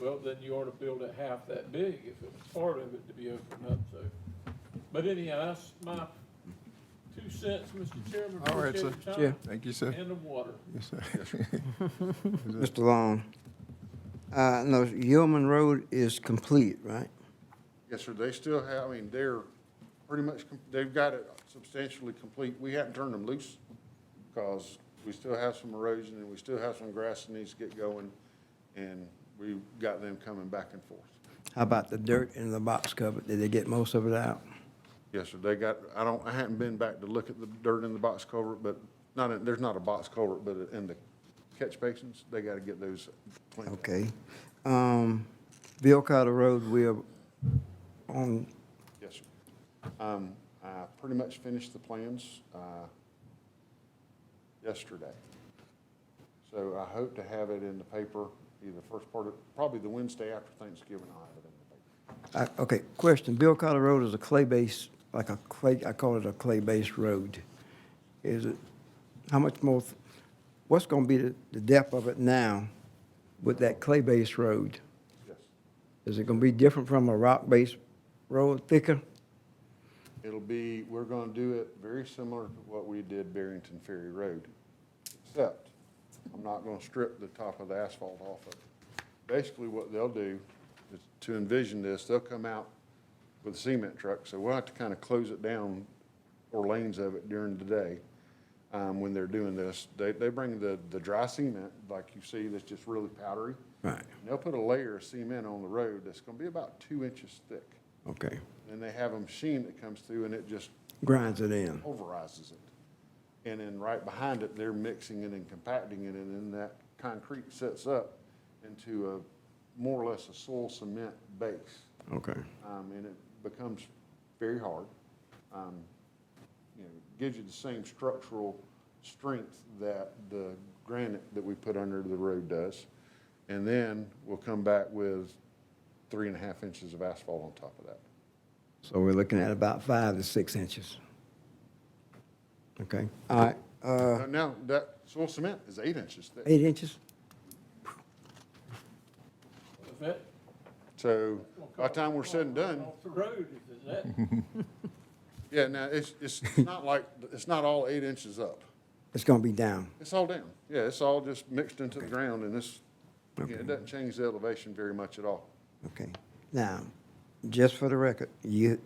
Well, then you ought to build it half that big if it was part of it to be opened up, so. But anyhow, that's my two cents, Mr. Chairman. All right, sir. Appreciate your Yeah, time thank you, sir. And the water. Yes, sir. Mr. Long, uh, no, Yeoman Road is complete, right? Yes, sir, they still have, I mean, they're pretty much, com- they've got it substantially complete. We haven't turned them loose because we still have some erosion and we still have some grass that needs to get going. And we've got them coming back and forth. How about the dirt in the box cover? Did they get most of it out? Yes, sir, they got, I don't, I haven't been back to look at the dirt in the box culvert, but not, in- there's not a box culvert, but in the catch basins, they got to get those cleaned up. Okay. Um, Bill Carter Road, we are on, Yes, sir. Um, I pretty much finished the plans, uh, yesterday. So I hope to have it in the paper either first part of, probably the Wednesday after Thanksgiving, I'll have it in the paper. I, okay, question. Bill Carter Road is a clay base, like a clay, I call it a clay base road. Is it, how much more, th- what's gonna be the, the depth of it now with that clay base road? Yes. Is it gonna be different from a rock base road, thicker? It'll be, we're gonna do it very similar to what we did Barrington Ferry Road, except I'm not gonna strip the top of the asphalt off of it. Basically, what they'll do is to envision this, they'll come out with a cement truck, so we'll have to kind of close it down or lanes of it during the day, um, when they're doing this. They, they bring the, the dry cement, like you see, that's just really powdery. Right, And they'll put a layer of cement on the road that's gonna be about two inches thick. okay. And they have a machine that comes through and it just Grinds it in. pulverizes it. And then right behind it, they're mixing it and compacting it, and then that concrete sets up into a, more or less a soil cement base. Okay. Um, and it becomes very hard. Um, you know, gives you the same structural strength that the granite that we put under the road does. And then we'll come back with three and a half inches of asphalt on top of that. So we're looking at about five to six inches. Okay, all right, uh, Uh, Now, that soil cement is eight inches thick. eight inches? Is that? So by the time we're said and done, Off the road, is that? yeah, now it's, it's not like, it's not all eight inches up. It's gonna be down. It's all down. Yeah, it's all just mixed into the ground and this, yeah, it doesn't change the elevation very much at all. Okay. Now, just for the record, you,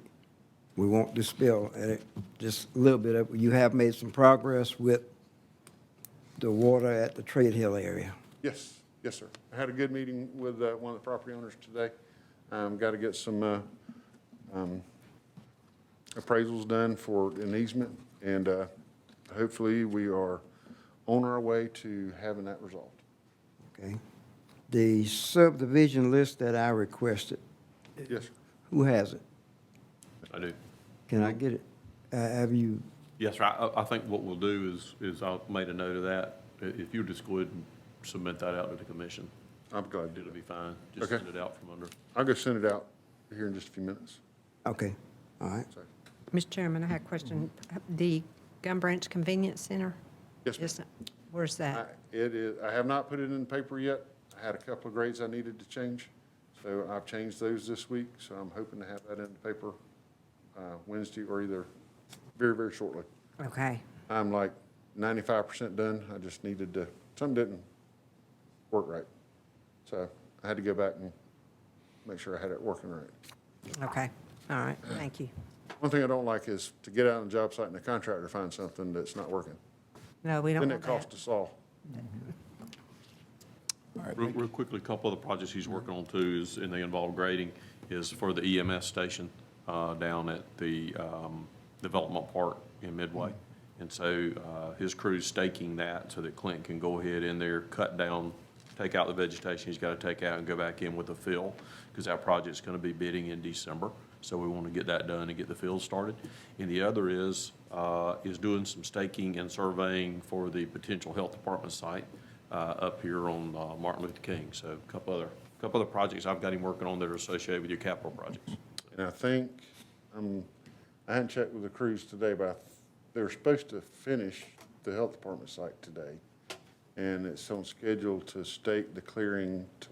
we won't dispel, uh, just a little bit of, you have made some progress with the water at the Trade Hill area. Yes, yes, sir. I had a good meeting with uh, one of the property owners today. Um, Got to get some uh, um, appraisals done for an easement, and uh, hopefully we are on our way to having that resolved. Okay. The subdivision list that I requested, Yes, sir. who has it? I do. Can I get it? Uh, Have you, Yes, sir. I, I- I think what we'll do is, is I've made a note of that. I- If you just go ahead and submit that out to the commission, I'm glad to do it'll it. be fine. Just Okay. send it out from under. I'll go send it out here in just a few minutes. okay, all right. So, Mr. Chairman, I had a question. The Gum Branch Convenience Center? Yes, ma'am. is- Where's I- that? It is, I have not put it in the paper yet. I had a couple of grades I needed to change, so I've changed those this week, so I'm hoping to have that in the paper uh, Wednesday or either very, very shortly. Okay, I'm like ninety-five percent done. I just needed to, some didn't work right. So I had to go back and make sure I had it working right. okay, all right, thank you. One thing I don't like is to get out on the job site and the contractor finds something that's not working. No, we don't Then it want that. costs us all. Real, real quickly, a couple of the projects he's working on too is, and they involve grading, is for the EMS station, uh, down at the, um, Development Park in Midway. And so, uh, his crew's staking that so that Clint can go ahead in there, cut down, take out the vegetation he's gotta take out and go back in with the fill, because that project's gonna be bidding in December. So we wanna get that done and get the fill started. And the other is, uh, is doing some staking and surveying for the potential health department site uh, up here on uh, Martin Luther King. So a couple other, couple other projects I've got him working on that are associated with your capital projects. And I think, um, I hadn't checked with the crews today, but I th- they were supposed to finish the health department site today. And it's on schedule to stake the clearing to